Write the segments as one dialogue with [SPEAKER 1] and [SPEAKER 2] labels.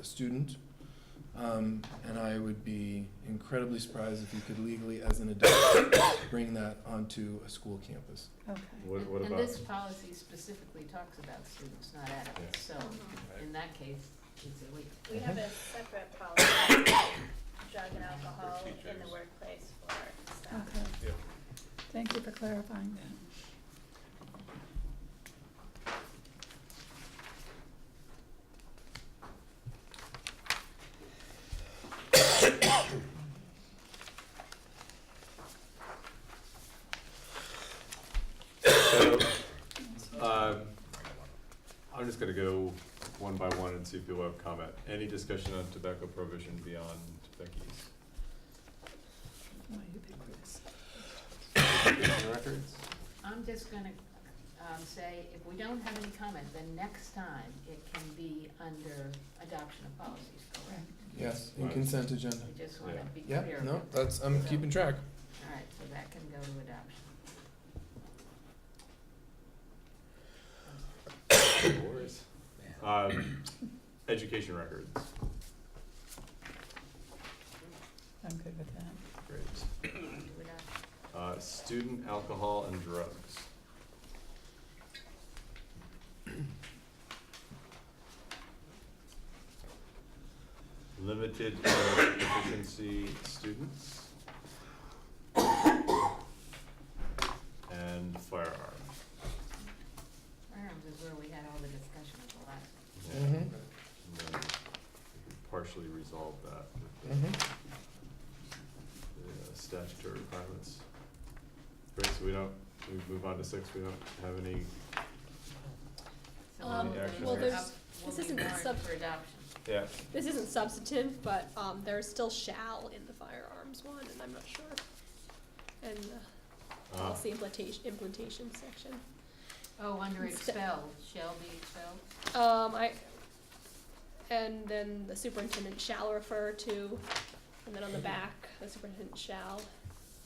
[SPEAKER 1] a student. Um, and I would be incredibly surprised if you could legally, as an adult, bring that onto a school campus.
[SPEAKER 2] Okay.
[SPEAKER 3] What, what
[SPEAKER 4] And-
[SPEAKER 3] about,
[SPEAKER 4] And this policy specifically talks about students, not adults, so in that case, it's illegal.
[SPEAKER 2] We have a separate policy, drug and alcohol in the workplace for staff.
[SPEAKER 5] Okay. Thank you for clarifying that.
[SPEAKER 3] so, um, I'm just gonna go one by one and see if people have comment. Any discussion on tobacco prohibition beyond Becky's?
[SPEAKER 5] Why you pick Chris?
[SPEAKER 3] Education records?
[SPEAKER 4] I'm just gonna, um, say, if we don't have any comment, then next time it can be under adoption of policies, correct?
[SPEAKER 1] Yes, in
[SPEAKER 3] Right.
[SPEAKER 1] consent agenda.
[SPEAKER 4] I just wanna
[SPEAKER 3] Yeah.
[SPEAKER 4] be clear.
[SPEAKER 1] Yeah, no,
[SPEAKER 4] about that.
[SPEAKER 1] that's, I'm
[SPEAKER 4] So-
[SPEAKER 1] keeping track.
[SPEAKER 4] All right, so that can go to adoption.
[SPEAKER 3] No worries. Um, education records,
[SPEAKER 5] I'm good with that.
[SPEAKER 3] great.
[SPEAKER 4] Do adoption.
[SPEAKER 3] Uh, student alcohol and drugs. Limited uh, proficiency students. And firearm.
[SPEAKER 4] Firearms is where we had all the discussion at the last.
[SPEAKER 3] Yeah.
[SPEAKER 1] Mhm.
[SPEAKER 3] And then we Partially resolve that with the
[SPEAKER 1] Mhm.
[SPEAKER 3] the, uh, statutory requirements. Great, so we don't, we move on to six, we don't have any,
[SPEAKER 4] So
[SPEAKER 3] Um,
[SPEAKER 4] we'll
[SPEAKER 3] well,
[SPEAKER 4] be up-
[SPEAKER 3] there's-
[SPEAKER 4] we'll
[SPEAKER 6] this
[SPEAKER 4] be
[SPEAKER 6] isn't
[SPEAKER 4] warned
[SPEAKER 6] sub-
[SPEAKER 4] For adoption.
[SPEAKER 3] yeah,
[SPEAKER 6] This isn't substantive, but um, there's still shall in the firearms one, and I'm not sure. And the
[SPEAKER 3] uh,
[SPEAKER 6] policy implementation, implementation section.
[SPEAKER 4] Oh, under
[SPEAKER 6] Insta-
[SPEAKER 4] expelled, shall be expelled?
[SPEAKER 6] Um, I, and then the superintendent shall refer to, and then on the back, the superintendent shall.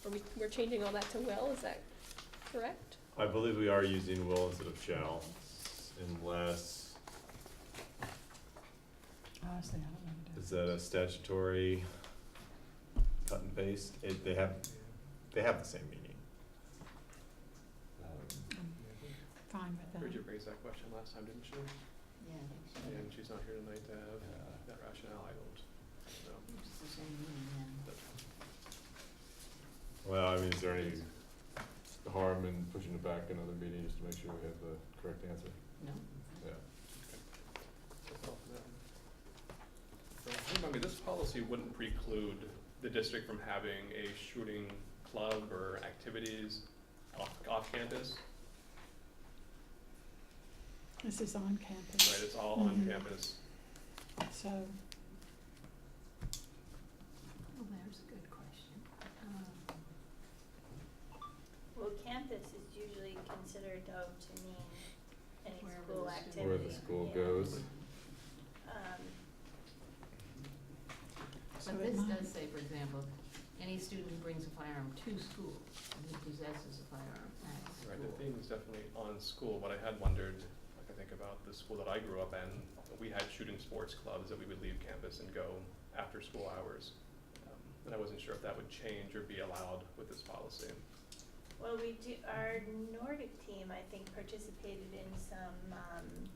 [SPEAKER 6] Are we, we're changing all that to will, is that correct?
[SPEAKER 3] I believe we are using will instead of shall, unless,
[SPEAKER 5] Honestly, I don't know. what it
[SPEAKER 3] is that a statutory cut and paste? It, they have, they have the same meaning. Um,
[SPEAKER 5] Fine with that.
[SPEAKER 7] Bridget raised that question last time, didn't she?
[SPEAKER 4] Yeah, I think so.
[SPEAKER 7] And she's not here tonight to have that rationale, I don't, know.
[SPEAKER 4] It's the same meaning, yeah.
[SPEAKER 3] Well, I mean, is there any harm in pushing it back another meeting just to make sure we have the correct answer?
[SPEAKER 4] No?
[SPEAKER 3] Yeah.
[SPEAKER 7] So, no. So, Remind me, this policy wouldn't preclude the district from having a shooting club or activities off, off campus,
[SPEAKER 5] This is on
[SPEAKER 7] right,
[SPEAKER 5] campus,
[SPEAKER 7] it's all on
[SPEAKER 5] Mhm.
[SPEAKER 7] campus.
[SPEAKER 5] so
[SPEAKER 4] Well, there's a good question. Um,
[SPEAKER 2] Well, campus is usually considered though to mean any
[SPEAKER 4] Wherever
[SPEAKER 2] school
[SPEAKER 4] the
[SPEAKER 2] activity.
[SPEAKER 4] student-
[SPEAKER 3] Where the school
[SPEAKER 2] yeah.
[SPEAKER 3] goes.
[SPEAKER 2] Um,
[SPEAKER 5] So
[SPEAKER 4] But
[SPEAKER 5] it
[SPEAKER 4] this
[SPEAKER 5] might-
[SPEAKER 4] does say, for example, any student who brings a firearm to school and who possesses a firearm at
[SPEAKER 7] Right, the
[SPEAKER 4] school.
[SPEAKER 7] theme is definitely on school, but I had wondered, like I think about the school that I grew up in, we had shooting sports clubs that we would leave campus and go after school hours. Um, And I wasn't sure if that would change or be allowed with this policy.
[SPEAKER 2] well, we do, our Nordic team, I think, participated in some, um,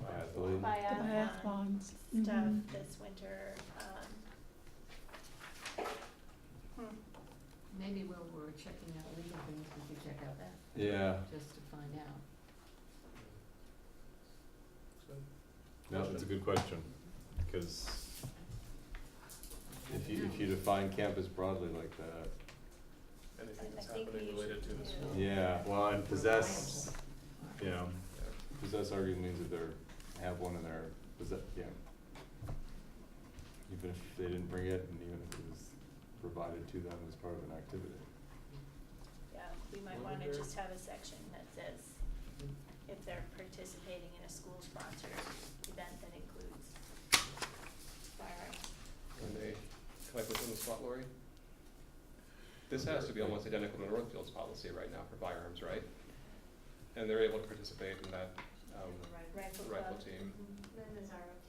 [SPEAKER 3] Biathlon.
[SPEAKER 5] the
[SPEAKER 2] biathlon.
[SPEAKER 5] biathlons.
[SPEAKER 2] stuff
[SPEAKER 5] Mhm.
[SPEAKER 2] this winter, um. hmm.
[SPEAKER 4] Maybe while we're checking out legal things, we could check out that,
[SPEAKER 3] Yeah,
[SPEAKER 4] just to find out.
[SPEAKER 7] So,
[SPEAKER 3] no, that's a good question, because if you, if you define campus broadly like that,
[SPEAKER 7] Anything
[SPEAKER 2] I- I
[SPEAKER 7] that's
[SPEAKER 2] think we
[SPEAKER 7] happening related to the
[SPEAKER 2] should
[SPEAKER 7] school.
[SPEAKER 2] do-
[SPEAKER 3] yeah, well, and possess,
[SPEAKER 4] Or-
[SPEAKER 3] you know,
[SPEAKER 7] Yeah.
[SPEAKER 3] possess arguably means that they're, have one in their, possess, yeah. Even if they didn't bring it, and even if it was provided to them as part of an activity.
[SPEAKER 2] Yeah, we might wanna
[SPEAKER 7] Wonder-
[SPEAKER 2] just have a section that says if they're participating in a school-sponsored event that includes fireworks.
[SPEAKER 7] When they, can I put in the spot, Lori? This has to be almost identical to Northfield's policy right now for firearms, right? And they're able to participate in that, um,
[SPEAKER 2] Rifle
[SPEAKER 7] rifle
[SPEAKER 2] club.
[SPEAKER 7] team.
[SPEAKER 2] Mhm.
[SPEAKER 8] Then there's our